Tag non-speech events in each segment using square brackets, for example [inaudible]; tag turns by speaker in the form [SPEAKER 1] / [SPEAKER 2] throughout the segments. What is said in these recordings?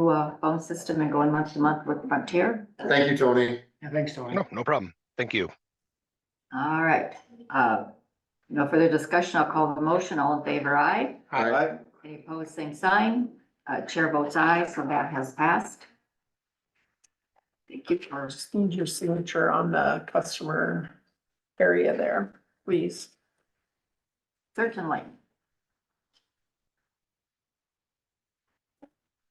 [SPEAKER 1] to a phone system and going month to month with Frontier.
[SPEAKER 2] Thank you, Tony.
[SPEAKER 3] Yeah, Thanks, Tony.
[SPEAKER 4] No, no problem. Thank you.
[SPEAKER 1] All right, uh, no further discussion. I'll call the motion. All in favor, aye.
[SPEAKER 2] All right.
[SPEAKER 1] Any opposed, same sign. Uh, chair votes aye, so that has passed. Thank you for
[SPEAKER 5] Just need your signature on the customer area there, please.
[SPEAKER 1] certainly.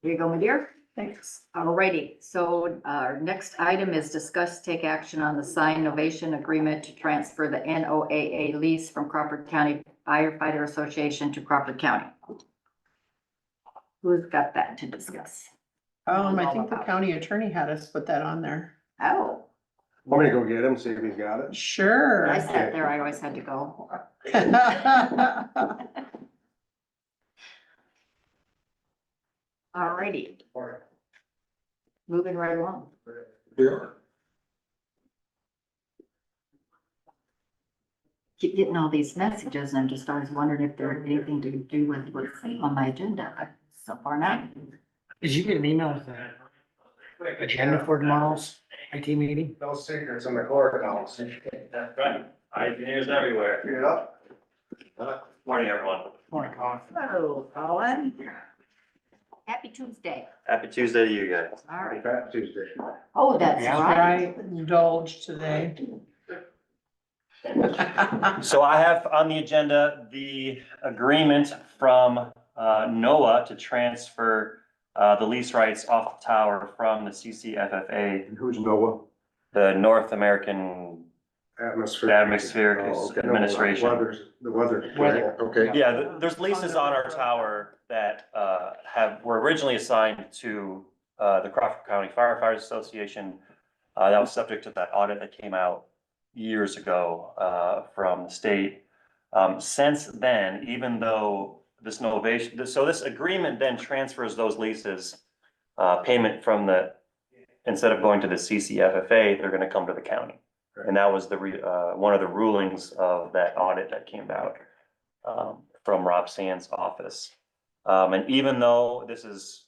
[SPEAKER 1] Here you go, my dear.
[SPEAKER 5] Thanks.
[SPEAKER 1] Alrighty, so uh, our next item is discuss, take action on the sign novation agreement to transfer the NOAA lease from Crawford County Firefighter Association to Crawford County. Who's got that to discuss?
[SPEAKER 5] Um, I think the county attorney had us put that on there.
[SPEAKER 1] Oh,
[SPEAKER 2] Want me to go get him, see if he's got it?
[SPEAKER 5] Sure.
[SPEAKER 1] I sat there, I always had to go. Alrighty, moving right along.
[SPEAKER 2] Yeah.
[SPEAKER 1] Keep getting all these messages and I'm just always wondering if there's anything to do with what's on my agenda. but So far not.
[SPEAKER 3] Did you get an email with the agenda for tomorrow's IT meeting?
[SPEAKER 2] No secrets in the courthouse.
[SPEAKER 6] That's right. I engineers everywhere.
[SPEAKER 2] Figured it out.
[SPEAKER 6] Morning, everyone.
[SPEAKER 3] Morning, Colin.
[SPEAKER 1] Hello, Colin. Happy Tuesday.
[SPEAKER 6] Happy Tuesday to you guys.
[SPEAKER 1] All right.
[SPEAKER 2] Fat Tuesday.
[SPEAKER 1] Oh, that's
[SPEAKER 3] Yeah.
[SPEAKER 1] right.
[SPEAKER 5] [laughs] I indulged today.
[SPEAKER 6] So I have on the agenda the agreement from uh, NOAA to transfer uh, the lease rights off the tower from the CCFFA,
[SPEAKER 2] And who's Noah?
[SPEAKER 6] the North American,
[SPEAKER 2] Atmosphere.
[SPEAKER 6] Atmospheric
[SPEAKER 2] Oh, okay.
[SPEAKER 6] Administration.
[SPEAKER 2] No, weather- The weather.
[SPEAKER 3] Weather.
[SPEAKER 2] Okay.
[SPEAKER 6] yeah, th- there's leases on our tower that uh, have, were originally assigned to uh, the Crawford County Firefighters Association. Uh, That was subject to that audit that came out years ago uh, from the state. Um, Since then, even though this novation, this- so this agreement then transfers those leases, uh, payment from the, instead of going to the CCFFA, they're going to come to the county. And that was the, re- uh, one of the rulings of that audit that came out um, from Rob Sand's office. Um, and even though this is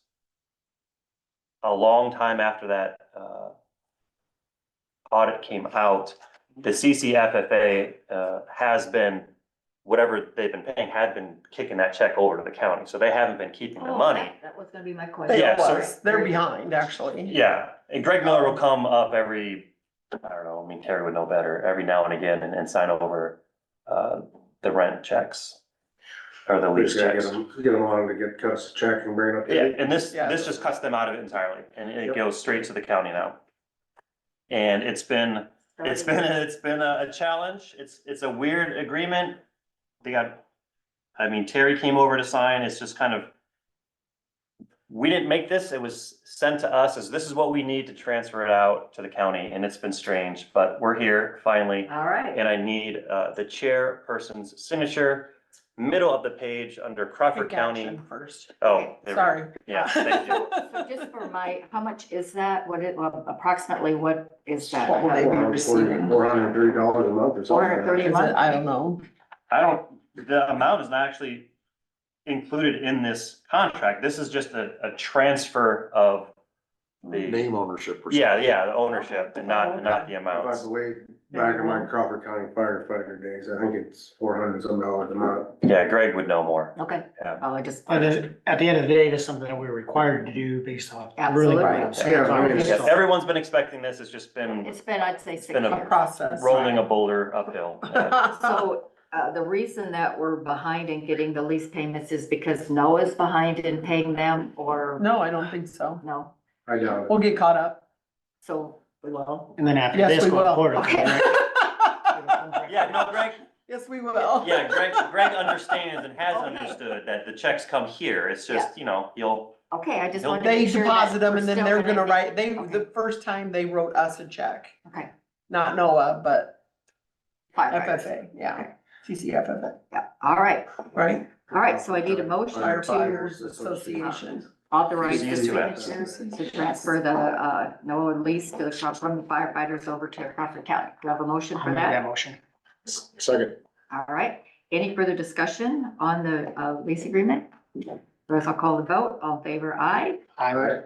[SPEAKER 6] a long time after that, uh, audit came out, the CCFFA, uh, has been, whatever they've been paying, had been kicking that check over to the county, so they haven't been keeping the
[SPEAKER 1] Oh,
[SPEAKER 6] money.
[SPEAKER 1] right. That was gonna be my question.
[SPEAKER 5] They
[SPEAKER 6] Yeah, so-
[SPEAKER 5] was, they're behind, actually.
[SPEAKER 6] Yeah, and Greg Miller will come up every, I don't know, I mean, Terry would know better, every now and again and, and sign over, uh, the rent checks. Or the
[SPEAKER 2] We
[SPEAKER 6] lease
[SPEAKER 2] just gotta
[SPEAKER 6] checks.
[SPEAKER 2] get him, get him on to get cuts a check and bring it up.
[SPEAKER 6] Yeah, and this,
[SPEAKER 5] Yeah.
[SPEAKER 6] this just cuts them out of it entirely, and it
[SPEAKER 2] Yep.
[SPEAKER 6] goes straight to the county now. And it's been, it's been, it's been a, a challenge, it's, it's a weird agreement. They got, I mean, Terry came over to sign, it's just kind of. We didn't make this, it was sent to us, as this is what we need to transfer it out to the county, and it's been strange, but we're here finally.
[SPEAKER 1] All right.
[SPEAKER 6] And I need, uh, the chairperson's signature, middle of the page under Crawford
[SPEAKER 5] Take
[SPEAKER 6] County.
[SPEAKER 5] action First,
[SPEAKER 6] Oh, there we go.
[SPEAKER 5] sorry.
[SPEAKER 6] Yeah, thank you.
[SPEAKER 1] [laughs] So just for my, how much is that? What it, well, approximately what is that?
[SPEAKER 5] What would they be receiving?
[SPEAKER 2] Four hundred and thirty dollars a month or something.
[SPEAKER 1] Four hundred thirty a
[SPEAKER 5] Is it-
[SPEAKER 1] month?
[SPEAKER 5] I don't know.
[SPEAKER 6] I don't, the amount is not actually included in this contract. This is just a, a transfer of the,
[SPEAKER 2] ownership.
[SPEAKER 6] yeah, yeah, the ownership and not, not the
[SPEAKER 2] By
[SPEAKER 6] amounts.
[SPEAKER 2] the way, back in my Crawford County firefighter days, I think it's four hundred some dollars a month.
[SPEAKER 6] Yeah, Greg would know more.
[SPEAKER 1] Okay,
[SPEAKER 6] Yeah.
[SPEAKER 1] well, I just.
[SPEAKER 3] But at at the end of the day, that's something that we're required to do based off. really
[SPEAKER 1] Absolutely.
[SPEAKER 3] what I'm saying.
[SPEAKER 2] Yeah, I mean,
[SPEAKER 6] Yes, everyone's been expecting this. It's just been
[SPEAKER 1] It's been, I'd say six.
[SPEAKER 6] been a
[SPEAKER 1] months.
[SPEAKER 5] process.
[SPEAKER 6] rolling a
[SPEAKER 1] [laughs]
[SPEAKER 6] boulder uphill.
[SPEAKER 1] So, uh, the reason that we're behind in getting the lease payments is because Noah's behind in paying them or
[SPEAKER 5] [laughs] No, I don't think so.
[SPEAKER 1] no?
[SPEAKER 2] I doubt it.
[SPEAKER 5] We'll get caught
[SPEAKER 6] [laughs]
[SPEAKER 5] up.
[SPEAKER 1] So, we will.
[SPEAKER 3] And then after
[SPEAKER 5] Yes,
[SPEAKER 3] this,
[SPEAKER 5] we
[SPEAKER 3] go to
[SPEAKER 5] will.
[SPEAKER 3] court.
[SPEAKER 1] Okay.
[SPEAKER 6] Yeah, no, Greg,
[SPEAKER 5] Yes, we will.
[SPEAKER 6] yeah, Greg, Greg understands and has
[SPEAKER 1] Okay.
[SPEAKER 6] understood that the checks come here. It's just, you know, you'll,
[SPEAKER 1] Okay, I just
[SPEAKER 6] They
[SPEAKER 1] wanted to
[SPEAKER 5] They
[SPEAKER 1] make sure. that
[SPEAKER 5] deposit them
[SPEAKER 1] we're
[SPEAKER 5] and then
[SPEAKER 1] still
[SPEAKER 5] they're gonna
[SPEAKER 1] be-
[SPEAKER 5] write, they,
[SPEAKER 1] Okay.
[SPEAKER 5] the first time they wrote us a check,
[SPEAKER 1] Okay.
[SPEAKER 5] not NOAA, but
[SPEAKER 1] fine, right.
[SPEAKER 5] FFA, yeah. CCFFA,
[SPEAKER 1] Yeah, all right,
[SPEAKER 5] right?
[SPEAKER 1] all right, so I need a motion to
[SPEAKER 2] Firefighters
[SPEAKER 5] Firefighters
[SPEAKER 2] Association.
[SPEAKER 5] Association.
[SPEAKER 1] authorize the
[SPEAKER 6] Easy to ask.
[SPEAKER 1] signatures to transfer the, uh, NOAA lease to the, Craw- from the firefighters over to Crawford County. Do I have a motion
[SPEAKER 3] I'll
[SPEAKER 1] for
[SPEAKER 3] make
[SPEAKER 1] that?
[SPEAKER 3] that motion.
[SPEAKER 2] Second.
[SPEAKER 1] All right, any further discussion on the, uh, lease agreement? Or if I call the vote, all in favor, aye?
[SPEAKER 3] I
[SPEAKER 2] All right.